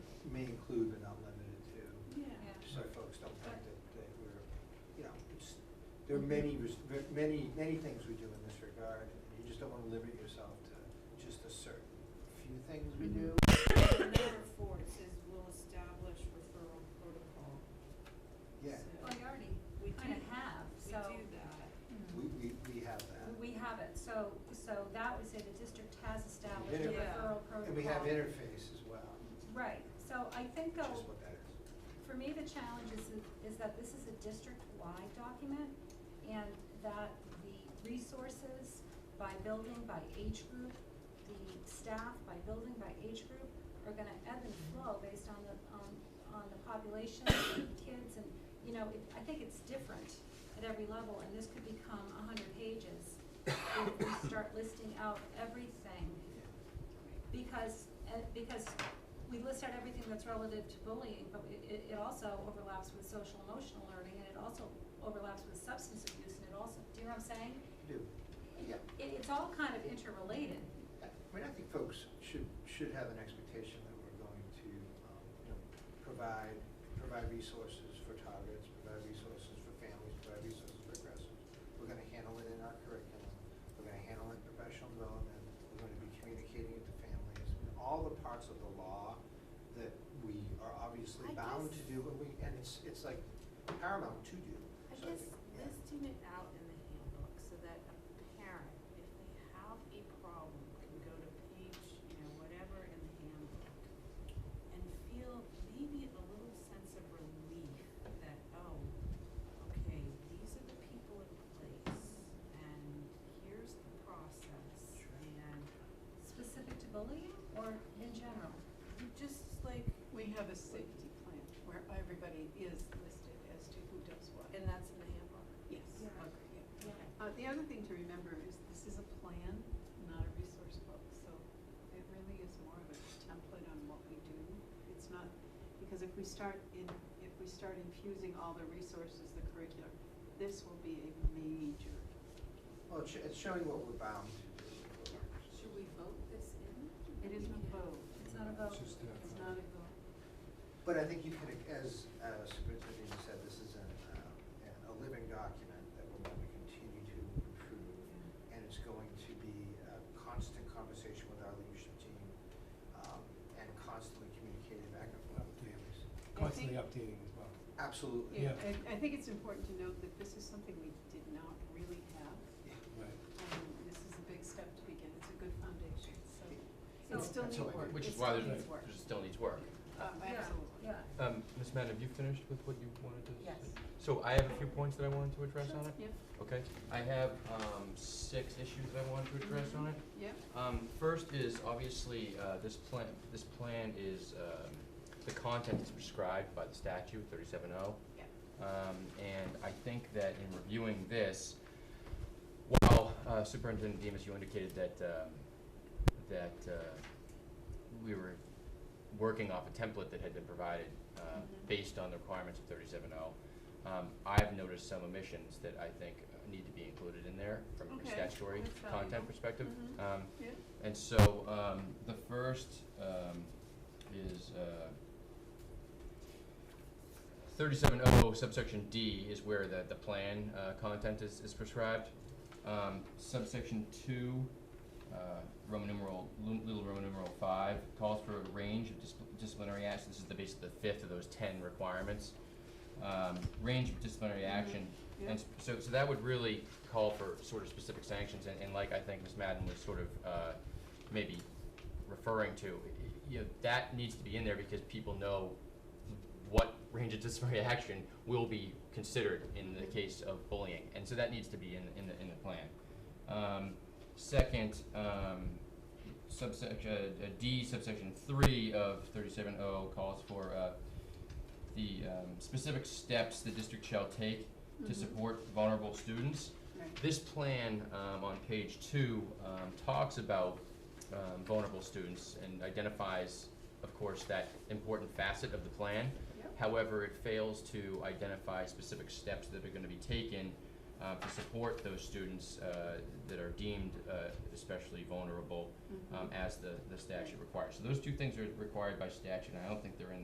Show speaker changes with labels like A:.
A: may include but not limited to,
B: Yeah.
A: so folks don't think that, that we're, you know, it's, there are many, res- ver- many, many things we do in this regard, and you just don't wanna limit yourself to just a certain few things we do.
B: Mm-hmm. Number four, it says will establish referral protocol.
A: Yeah,
C: Well, we
B: We
C: already kind
B: do-
C: of have,
B: We
C: so.
B: do that.
C: Mm.
A: we, we, we have that.
C: We have it, so, so that would say the district has established a
A: Inter-
B: Yeah.
C: referral protocol.
A: And we have interface as well,
C: Right, so I
A: which
C: think though,
A: is what that is.
C: for me, the challenge is, that- is that this is a district-wide document and that the resources by building, by age group, the staff by building, by age group are gonna ebb and flow based on the, on, on the population and kids and, you know, it, I think it's different at every level and this could become a hundred pages if we start listing out everything because, uh, because we list out everything that's relative to bullying, but it- it, it also overlaps with social emotional learning, and it also overlaps with substance abuse, and it also, do you know what I'm saying?
A: We do. Yeah.
C: It, it's all kind of interrelated.
A: I mean, I think folks should, should have an expectation that we're going to, um, you know, provide, provide resources for targets, provide resources for families, provide resources for aggressors. We're gonna handle it in our curriculum, we're gonna handle it in professional development, we're gonna be communicating it to families. And All the parts of the law that we are obviously
B: I
A: bound to
B: guess-
A: do, and we, and it's, it's like paramount to do.
B: I
A: So
B: guess
A: think, yeah.
B: listing it out in the handbook so that a parent, if they have a problem, can go to page, you know, whatever in the handbook and feel maybe a little sense of relief that, oh, okay, these are the people in place and here's the process
A: Sure.
B: and
C: Specific to bullying or in general?
B: you just like,
D: We have a safety plan where everybody is listed as to who does what.
B: and that's in the handbook.
D: Yes.
C: Yeah.
D: okay, yeah.
C: Yeah.
D: Uh, the other thing to remember is this is a plan, not a resource book, so it really is more of a template on what we do. It's not, because if we start in, if we start infusing all the resources, the curriculum, this will be a major.
A: Well, it's, it's showing what we're bound to do. what we're-
B: Should we vote this in?
D: It isn't a vote,
C: It's not a vote.
D: it's not a vote.
A: But I think you can, as uh, Superintendent Egan said, this is an, um, an- a living document that we're going to continue to improve. And it's going to be a constant conversation with our leadership team um, and constantly communicating back and forth with families.
E: constantly updating as well.
A: Absolutely.
D: Yeah,
E: Yeah.
D: I, I think it's important to note that this is something we did not really have,
A: Yeah.
E: Right.
D: and this is a big step to begin, it's a good foundation, so
C: So-
D: it still
A: That's all
D: needs
A: I
D: work,
A: did.
D: it
F: Which is
D: still
F: why there's,
D: needs work.
F: there's still needs work.
D: Uh,
C: Yeah,
D: absolutely.
C: Yeah,
F: Um, Ms. Madden, have you finished with what you wanted to say?
C: Yes.
F: So I have a few points that I wanted to address
D: Sure.
F: on it, okay? I have, um, six issues that I wanted to
D: Mm-hmm.
F: address on it.
D: Yeah, yeah,
F: Um, first is obviously, uh, this plan, this plan is, um, the content is prescribed by the statute thirty-seven oh.
D: yeah.
F: Um, and I think that in reviewing this, while uh, Superintendent Demas, you indicated that, um, that, uh, we were working off a template that had been provided, uh,
D: Mhm.
F: based on the requirements of thirty-seven oh, um, I've noticed some omissions that I think uh, need to be included in there from a
D: Okay,
F: statutory
D: that's valuable.
F: content perspective.
D: Mhm.
F: Um,
D: Yeah.
F: and so, um, the first, um, is, uh, thirty-seven oh subsection D is where the, the plan, uh, content is, is prescribed. Um, subsection two, uh, Roman numeral, lu- little Roman numeral five, calls for a range of discipl- disciplinary actions. This is the, basically the fifth of those ten requirements. Um, range of disciplinary action
D: Yeah.
F: and s- so, so that would really call for sort of specific sanctions, and, and like I think Ms. Madden was sort of, uh, maybe referring to, you know, that needs to be in there because people know what range of disciplinary action will be considered in the case of bullying, and so that needs to be in, in the, in the plan. Um, second, um, subsection, uh, D subsection three of thirty-seven oh calls for, uh, the, um, specific steps the district shall take to
D: Mhm.
F: support vulnerable students.
D: Right.
F: This plan um, on page two um, talks about um, vulnerable students and identifies, of course, that important facet of the plan.
D: Yep.
F: However, it fails to identify specific steps that are going to be taken uh, to support those students uh, that are deemed uh, especially
D: Mm-hmm.
F: vulnerable um, as the, the statute requires. So those two things are required by statute, and I don't think they're in